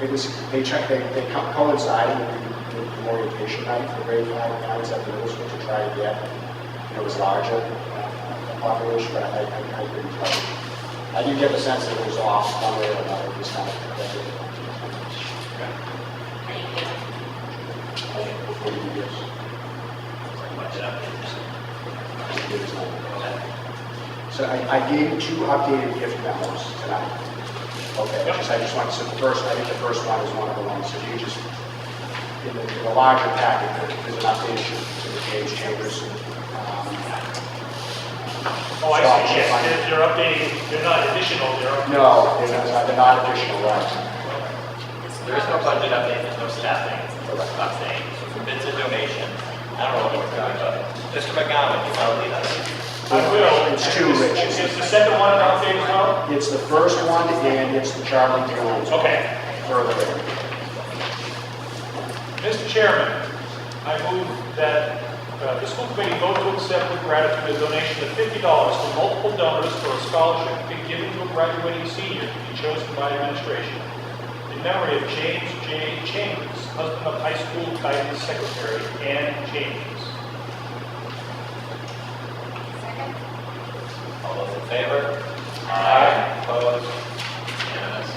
They just, they check, they, they co- coincide with the- with the orientation night, the grade five nights at the middle school to try to get, you know, as large a a uh, population, but I, I I couldn't tell. you. I do get the sense that it was off one way or another, this kind of, that's Thank you. Much updated. So I, I gave two updated gift memos tonight. Okay, just, I just want, so the first, I think the first one is one of the ones, so you just, in the, in the larger packet, there- there's an update to the page chambers. um, Oh, I see, yes, they're- they're updating, they're not additional, they're up- No, they're not, they're not additional, right? There is no budget update, there's no staffing, I'm saying, it's a donation. I don't know what we're talking about. Mr. McGowan, you probably know. I will. It's too rich. Is is the second one an update as well? It's the first one and it's the Charlie Jones. Okay. Further. in. Mr. Chairman, I move that uh, the school committee vote to accept with gratitude a donation of $50 from multiple donors for a scholarship to be given to a graduating senior to be chosen by administration in memory of James J. Chambers, husband of high school guidance secretary Ann Chambers. All those in favor? Aye. Opposed? Unanimous?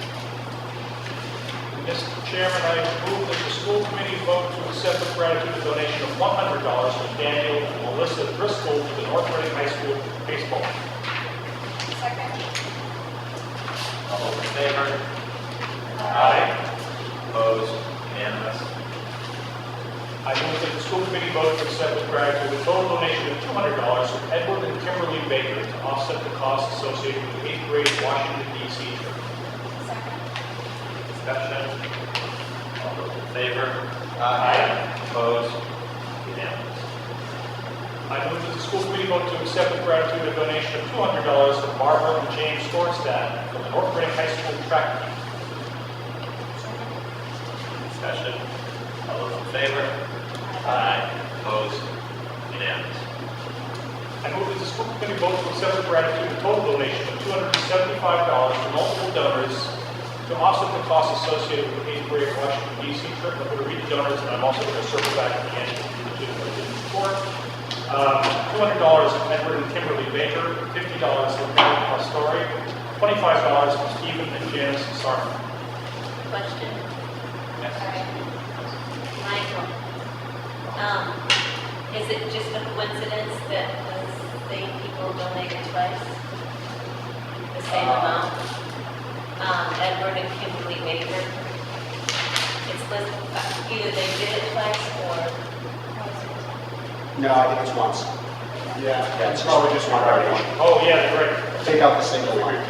Mr. Chairman, I move that the school committee vote to accept with gratitude a donation of $100 from Daniel and Melissa Driscoll to the North Reading High School baseball team. All those in favor? Aye. Opposed? Unanimous? I move that the school committee vote to accept with gratitude a total donation of $200 from Edward and Kimberly Baker to offset the costs associated with the eighth grade Washington DC trip. Discussion? All those in favor? Aye. Opposed? Unanimous? I move that the school committee vote to accept with gratitude a donation of $200 from Barbara and James Thorstad from the North Reading High School track team. Discussion? All those in favor? Aye. Opposed? Unanimous? I move that the school committee vote to accept with gratitude a total donation of $275 from multiple donors to offset the costs associated with the eighth grade Washington DC trip. I'm going to read the donors, and I'm also going to circle back at the end to the budget report. Um, $200 from Edward and Kimberly Baker, $50 from Mary Pastore, $25 from Stephen and Janice Sarman. Question? Sorry. Michael, um, is it just a coincidence that those same people donated twice? The same Uh, amount? Um, Edward and Kimberly Baker? It's listed, uh, either they did it twice or, No, I think it's once. Yeah. Yeah, it's probably just one donation. Oh, yeah, great. Take out the single one. or,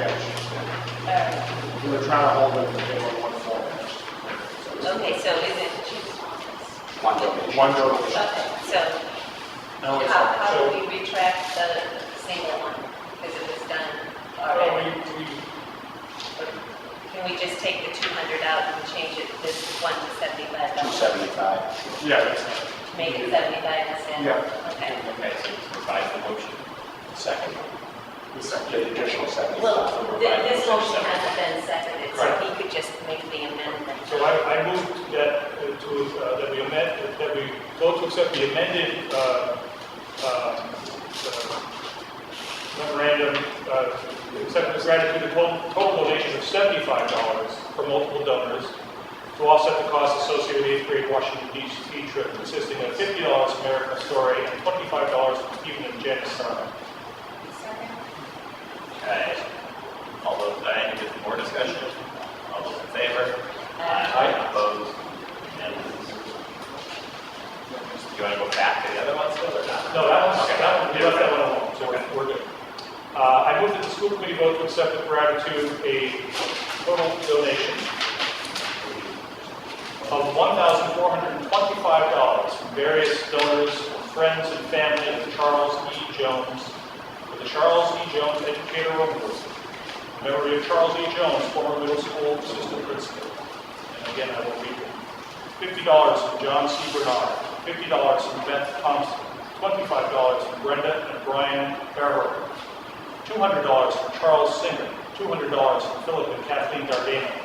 We were trying to hold it, but they were one format. okay, so is it just? One donation. One donation. Okay, so Now it's- how, how so- do we retract the single one? Because it was done Uh, already. we- we- Can we just take the 200 out and change it, this one to 75? Two seventy-five. Yeah, that's- Make it 75 instead? Yeah. Okay. Okay, so provide the motion. Second. The additional seventy-five. Well, th- this motion hasn't been seconded, so Right. he could just make the amendment. So I, I moved that uh, to, uh, that we amend, that we vote to accept the amended, uh, uh, memorandum, uh, accept with gratitude, the total, total donation of seventy-five dollars for multiple donors to offset the costs associated with the eighth grade Washington DC trip consisting of fifty dollars from Eric Pastore and twenty-five dollars from Stephen and Janice Sarno. Okay. All those, I need more discussion. All those in favor? Aye. Opposed? Unanimous? Do you want to go back to the other ones still or not? No, that one's, Okay. that one, we left that one alone, so we're- we're good. Uh, I move that the school committee vote to accept with gratitude a total donation of $1,425 from various donors, friends and family of Charles E. Jones, for the Charles E. Jones Educator Award, in memory of Charles E. Jones, former middle school assistant principal. And again, I will read them. Fifty dollars from John C. Bernard, fifty dollars from Beth Thompson, twenty-five dollars from Brenda and Brian Barrow, two hundred dollars from Charles Singer, two hundred dollars from Philip and Kathleen Dardano,